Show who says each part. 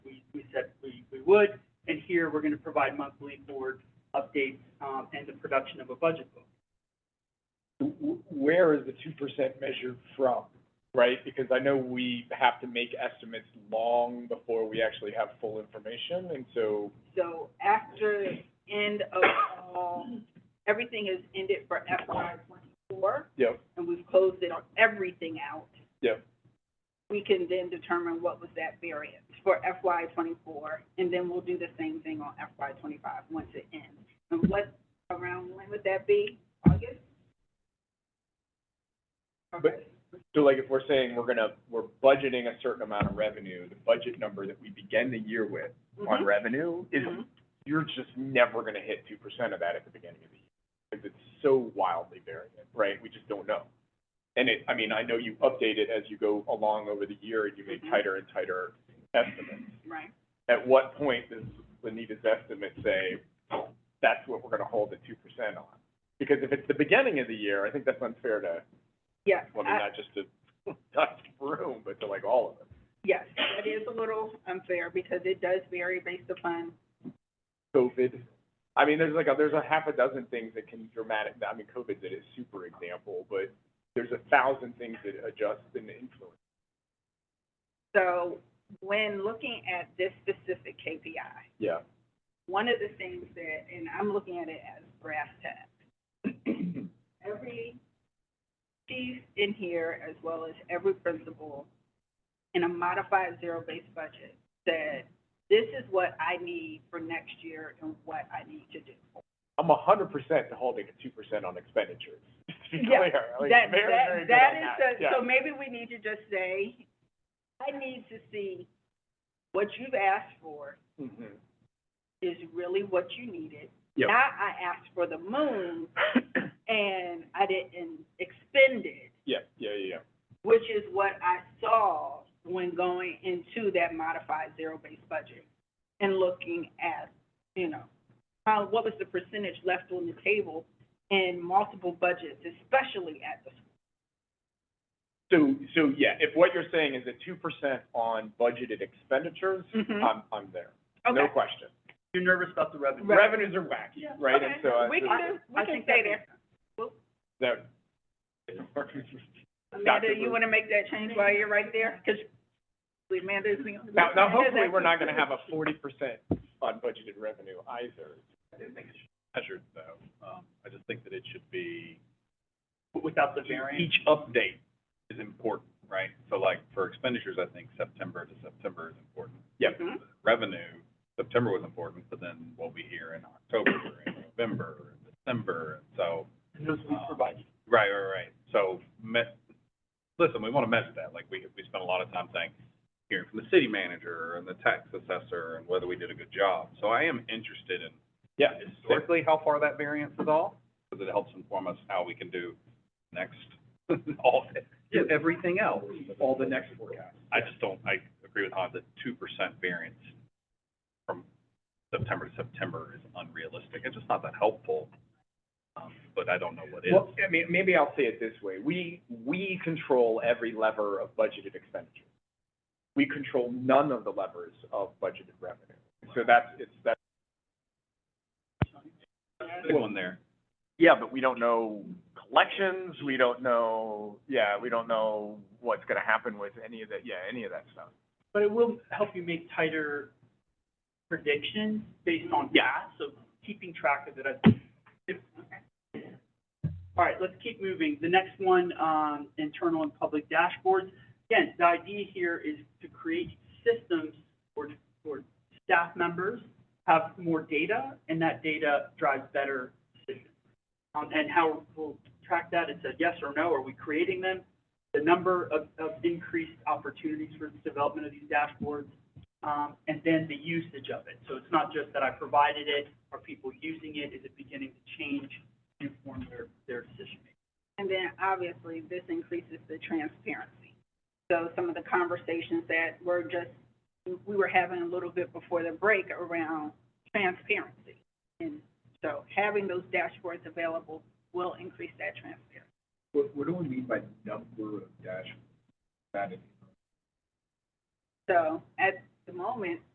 Speaker 1: would. And here, we're going to provide monthly board updates um, and the production of a budget book.
Speaker 2: w- where is the two percent measured from, right? Because I know we have to make estimates long before we actually have full information, and so,
Speaker 3: So after the end of all, everything is ended for FY twenty-four,
Speaker 2: yep,
Speaker 3: and we've closed it on everything out.
Speaker 2: Yep.
Speaker 3: We can then determine what was that variance for FY twenty-four, and then we'll do the same thing on FY twenty-five once it ends. And what, around when would that be? August?
Speaker 2: But- so like if we're saying we're gonna, we're budgeting a certain amount of revenue, the budget number that we begin the year with on
Speaker 3: Mhm.
Speaker 2: revenue is,
Speaker 3: Mhm.
Speaker 2: you're just never gonna hit two percent of that at the beginning of the year. Because it's so wildly variant, right? We just don't know. And it, I mean, I know you update it as you go along over the year, and you make
Speaker 3: Mhm.
Speaker 2: tighter and tighter estimates.
Speaker 3: Right.
Speaker 2: at what point does Lenita's estimate say, that's what we're gonna hold at two percent on? Because if it's the beginning of the year, I think that's unfair to,
Speaker 3: Yes,
Speaker 2: well, I mean,
Speaker 3: I-
Speaker 2: not just to Dr. Broom, but to like all of us.
Speaker 3: yes, that is a little unfair because it does vary based upon,
Speaker 2: COVID, I mean, there's like, a there's a half a dozen things that can dramatic, I mean, COVID's a super example, but there's a thousand things that adjust and influence.
Speaker 3: so when looking at this specific KPI,
Speaker 2: Yeah.
Speaker 3: one of the things that, and I'm looking at it as brass tacks. Every chief in here, as well as every principal, in a modified zero-based budget, said, this is what I need for next year and what I need to do.
Speaker 2: I'm a hundred percent to holding a two percent on expenditures, to be
Speaker 3: Yeah,
Speaker 2: clear, like,
Speaker 3: That,
Speaker 2: Oh, very,
Speaker 3: that-
Speaker 2: very good
Speaker 3: that
Speaker 2: on
Speaker 3: is
Speaker 2: that.
Speaker 3: the-
Speaker 2: Yeah.
Speaker 3: So maybe we need to just say, I need to see what you've asked for
Speaker 2: Mhm.
Speaker 3: is really what you needed.
Speaker 2: Yep.
Speaker 3: Not I asked for the moon and I didn't expend it,
Speaker 2: Mm-hmm. Yeah, yeah, yeah, yeah.
Speaker 3: which is what I saw when going into that modified zero-based budget and looking at, you know, how, what was the percentage left on the table in multiple budgets, especially at the
Speaker 2: So, so yeah, if what you're saying is a two percent on budgeted expenditures,
Speaker 3: Mhm.
Speaker 2: I'm, I'm there. No
Speaker 3: Okay.
Speaker 2: question.
Speaker 1: You're nervous about the revenue.
Speaker 3: Right.
Speaker 2: Revenues are wacky,
Speaker 1: Yeah.
Speaker 2: right? And
Speaker 3: Okay.
Speaker 2: so I,
Speaker 3: We
Speaker 2: so
Speaker 3: can,
Speaker 1: I
Speaker 3: we can
Speaker 1: think
Speaker 3: stay
Speaker 1: that
Speaker 3: there.
Speaker 2: that.
Speaker 3: Amanda,
Speaker 2: Dr.
Speaker 3: you
Speaker 2: Booth.
Speaker 3: want to make that change while you're right there? Because Amanda's the only.
Speaker 2: Now, now hopefully, we're not gonna have a forty percent unbudgeted revenue either.
Speaker 4: measured though. Um, I just think that it should be,
Speaker 1: Without the variance.
Speaker 4: each update is important, right? So like for expenditures, I think September to September is important. Revenue, September was important, but then what we hear in October and November and December, and so,
Speaker 1: And those we provide.
Speaker 4: right, right, right. So me, listen, we want to measure that. Like we, we spent a lot of time saying, hearing from the city manager and the tax assessor and whether we did a good job. So I am interested in
Speaker 2: Yeah.
Speaker 4: historically how far that variance is off, because it helps inform us how we can do next, all, do everything else, all the next forecast. I just don't, I agree with Hans, that two percent variance from September to September is unrealistic, it's just not that helpful, um, but I don't know what is.
Speaker 2: Well, I mean, maybe I'll say it this way. We, we control every lever of budgeted expenditure. We control none of the levers of budgeted revenue. So that's, it's, that's,
Speaker 4: Big one there.
Speaker 2: yeah, but we don't know collections, we don't know, yeah, we don't know what's gonna happen with any of that, yeah, any of that stuff.
Speaker 1: But it will help you make tighter predictions based on that, so keeping track of it, I think. if- All right, let's keep moving. The next one, um, internal and public dashboards. Again, the idea here is to create systems for, for staff members, have more data, and that data drives better decisions. Um, and how we'll track that, it's a yes or no, are we creating them? the number of, of increased opportunities for the development of these dashboards, um, and then the usage of it. So it's not just that I provided it, are people using it, is it beginning to change, inform their, their decision making?
Speaker 3: And then obviously, this increases the transparency. So some of the conversations that were just, we were having a little bit before the break around transparency. And so having those dashboards available will increase that transparency.
Speaker 5: What, what do we mean by number of dash? That is-
Speaker 3: So at the moment,